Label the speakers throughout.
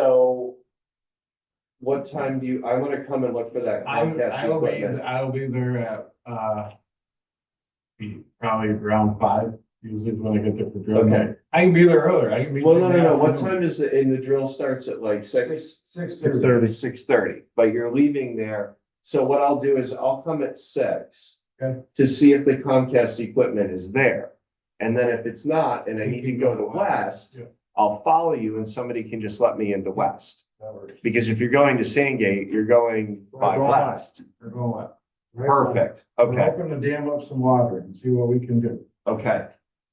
Speaker 1: So. What time do you, I wanna come and look for that
Speaker 2: I'm,
Speaker 1: Comcast
Speaker 2: I'll be,
Speaker 1: equipment.
Speaker 2: I'll be there at, uh. be Probably around five, usually is when I get there for drill.
Speaker 1: Okay.
Speaker 2: I can be there earlier, I can be.
Speaker 1: Well,
Speaker 2: there
Speaker 1: no,
Speaker 2: in
Speaker 1: no,
Speaker 2: the
Speaker 1: no, what
Speaker 2: afternoon.
Speaker 1: time does, it? and the drill starts at like six?
Speaker 2: Six
Speaker 1: Six
Speaker 2: thirty.
Speaker 1: thirty. Six thirty, but you're leaving there, so what I'll do is I'll come at six.
Speaker 2: Okay.
Speaker 1: To see if the Comcast equipment is there, and then if it's not, and I need to go to West,
Speaker 2: Yeah,
Speaker 1: I'll follow you and somebody can just let me into West.
Speaker 2: that works.
Speaker 1: Because if you're going to Sandgate, you're going by
Speaker 2: Right, right.
Speaker 1: West,
Speaker 2: We're going up.
Speaker 1: perfect,
Speaker 2: We're
Speaker 1: okay.
Speaker 2: hoping to dam up some water and see what we can do.
Speaker 1: Okay,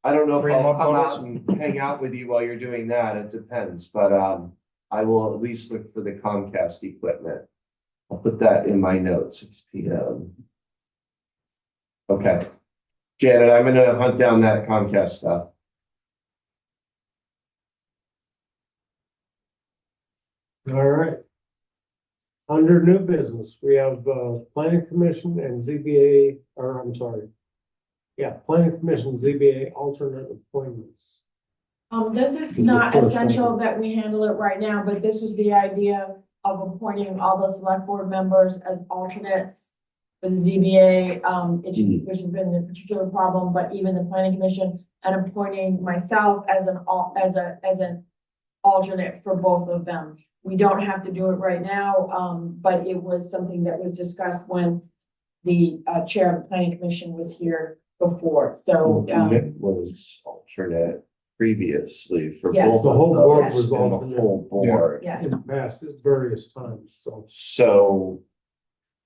Speaker 1: I don't know if
Speaker 2: Three
Speaker 1: I'll
Speaker 2: more
Speaker 1: come
Speaker 2: photos?
Speaker 1: out and hang out with you while you're doing that, it depends, but, um, I will at least look for the Comcast equipment. I'll put that in my notes, six P M. Okay, Janet, I'm gonna hunt down that Comcast stuff.
Speaker 3: All right. Under new business, we have, uh, planning commission and ZBA, or I'm sorry. Yeah, planning commission, ZBA alternate appointments.
Speaker 4: Um, this
Speaker 3: is
Speaker 4: is not
Speaker 3: the first
Speaker 4: essential that we handle it right now, but this is the idea of appointing all the select board members as alternates. For the ZBA, um, it just, which has been a particular problem, but even the planning commission and appointing myself as an al, as a, as an alternate for both of them. We don't have to do it right now, um, but it was something that was discussed when the, uh, chair of the planning commission was here before, so, um,
Speaker 1: Nick was alternate previously for
Speaker 4: Yes.
Speaker 1: both
Speaker 3: The whole
Speaker 1: of
Speaker 3: board
Speaker 1: us and
Speaker 3: was
Speaker 1: the
Speaker 3: alternate.
Speaker 1: Whole board,
Speaker 4: yeah.
Speaker 3: In the past, at various times, so.
Speaker 1: so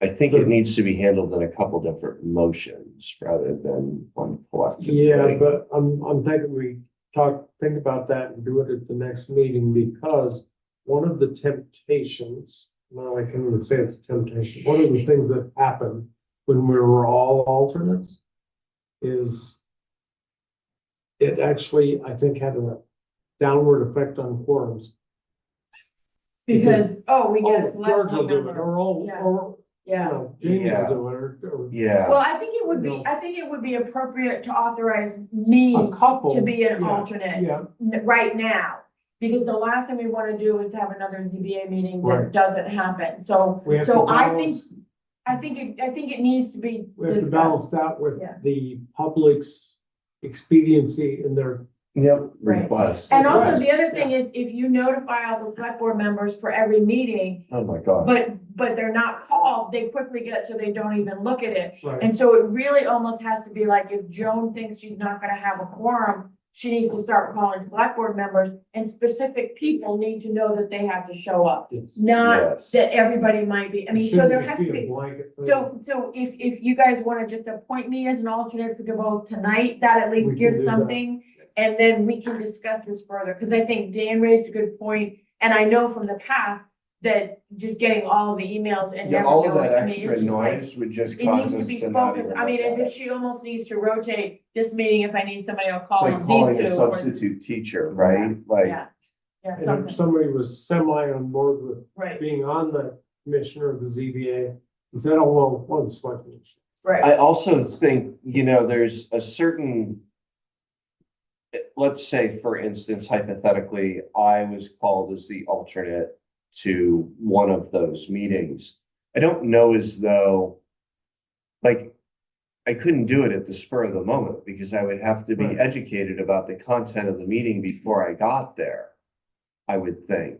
Speaker 1: I think it needs to be handled in a couple different motions rather than one collective.
Speaker 3: Yeah,
Speaker 1: thing.
Speaker 3: but I'm, I'm thinking we talk, think about that and do it at the next meeting because one of the temptations, well, I can't even say it's a temptation, one of the things that happened when we were all alternates is it actually, I think, had a downward effect on quorums.
Speaker 4: Because, oh, we get a
Speaker 3: Oh,
Speaker 4: select
Speaker 3: George will
Speaker 4: board
Speaker 3: do it,
Speaker 4: member.
Speaker 3: or, oh,
Speaker 4: Yeah.
Speaker 3: or, you
Speaker 4: Yeah,
Speaker 3: know, Jamie
Speaker 1: Yeah.
Speaker 3: will do it, or- or
Speaker 1: Yeah.
Speaker 4: well, I think it would be, I think it would be appropriate to authorize me
Speaker 3: a couple.
Speaker 4: to be an
Speaker 3: yeah,
Speaker 4: alternate
Speaker 3: Yeah,
Speaker 4: n- right now. Because the last thing we wanna do is to have another ZBA meeting that
Speaker 3: Right.
Speaker 4: doesn't happen, so
Speaker 3: we have to
Speaker 4: So I think
Speaker 3: balance.
Speaker 4: I think, it I think it needs to be
Speaker 3: We have to balance
Speaker 4: discussed.
Speaker 3: that with
Speaker 4: Yeah.
Speaker 3: the public's expediency in their,
Speaker 1: Yep.
Speaker 4: Right.
Speaker 1: Request.
Speaker 4: And also,
Speaker 3: Yes,
Speaker 4: the other thing is, if you notify all the select board members for every meeting,
Speaker 1: Oh, my God.
Speaker 4: but, but they're not called, they quickly get it, so they don't even look at it.
Speaker 3: right,
Speaker 4: And so it really almost has to be like, if Joan thinks she's not gonna have a quorum, she needs to start calling select board members, and specific people need to know that they have to show up.
Speaker 3: it's.
Speaker 4: Not
Speaker 1: Yes.
Speaker 4: that everybody might be, I mean, so there has to
Speaker 3: Shouldn't just a
Speaker 4: be,
Speaker 3: blanket thing.
Speaker 4: so, so if, if you guys wanna just appoint me as an alternate for DeVoe tonight, that at
Speaker 3: We
Speaker 4: least
Speaker 3: can do
Speaker 4: gives
Speaker 3: that.
Speaker 4: something. And then we can discuss this further, cause I think Dan raised a good point, and I know from the past that just getting all the emails and
Speaker 1: Yeah,
Speaker 4: never
Speaker 1: all of
Speaker 4: knowing,
Speaker 1: that
Speaker 4: I mean, it's
Speaker 1: extra
Speaker 4: just like-
Speaker 1: noise would just
Speaker 4: it
Speaker 1: cause
Speaker 4: needs
Speaker 1: us
Speaker 4: to be
Speaker 1: to not even.
Speaker 4: focused, I mean,
Speaker 1: look at
Speaker 4: it's
Speaker 1: it.
Speaker 4: just, she almost needs to rotate this meeting, if I need somebody, I'll
Speaker 1: It's
Speaker 4: call
Speaker 1: like
Speaker 4: on
Speaker 1: calling
Speaker 4: these
Speaker 1: a
Speaker 4: two. or-
Speaker 1: substitute teacher, right? Like,
Speaker 4: Yeah, yeah,
Speaker 3: And if
Speaker 4: something,
Speaker 3: somebody was semi on board with
Speaker 4: right,
Speaker 3: being on the commissioner of the ZBA, and said, oh, well, well, the selectmen. should."
Speaker 4: right,
Speaker 1: I also think, you know, there's a certain. Let's say, for instance, hypothetically, I was called as the alternate to one of those meetings. I don't know as though. Like, I couldn't do it at the spur of the moment because I would have to be
Speaker 3: Right.
Speaker 1: educated about the content of the meeting before I got there. I would think.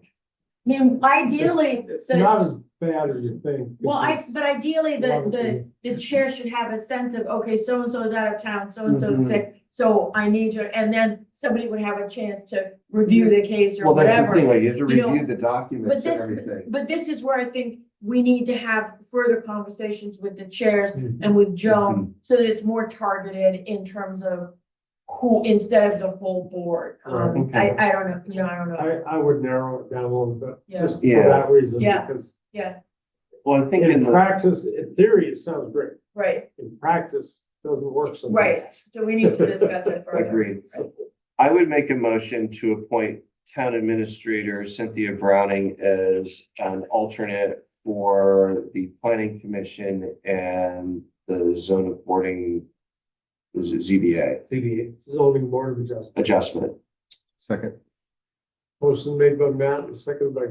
Speaker 4: I mean, ideally,
Speaker 3: It's
Speaker 4: the,
Speaker 3: not as bad as you think.
Speaker 4: well, I,
Speaker 3: because-
Speaker 4: but ideally, the,
Speaker 3: Obviously.
Speaker 4: the, the chair should have a sense of, okay, so-and-so's out of town, so-and-so's
Speaker 1: Mhm.
Speaker 4: sick, so I need you, and then somebody would have a chance to review the case or
Speaker 1: Well, that's the thing,
Speaker 4: whatever.
Speaker 1: like, you have to
Speaker 4: You know,
Speaker 1: review the
Speaker 4: But
Speaker 1: documents and
Speaker 4: this,
Speaker 1: everything.
Speaker 4: but this is where I think we need to have further conversations with the chairs
Speaker 3: Mhm.
Speaker 4: and with Joan, so that it's more targeted in terms of who, instead of the whole board. Um, I, I don't know, you know, I don't
Speaker 3: I,
Speaker 4: know,
Speaker 3: I would narrow it down a little bit,
Speaker 4: Yeah.
Speaker 3: just for
Speaker 1: Yeah.
Speaker 3: that reason,
Speaker 4: Yeah.
Speaker 3: because
Speaker 4: yeah,
Speaker 1: Well, I think in
Speaker 3: in
Speaker 1: the,
Speaker 3: practice, in theory, it sounds great.
Speaker 4: right,
Speaker 3: In practice, it doesn't work sometimes.
Speaker 4: right, so we need to discuss it further.
Speaker 1: agreed.
Speaker 4: Right.
Speaker 1: I would make a motion to appoint town administrator Cynthia Browning as an alternate for the planning commission and the zone of boarding, was it ZBA
Speaker 3: ZBA, zoning board of adjustment.
Speaker 1: adjustment.
Speaker 5: Second.
Speaker 3: Motion made by Matt and seconded by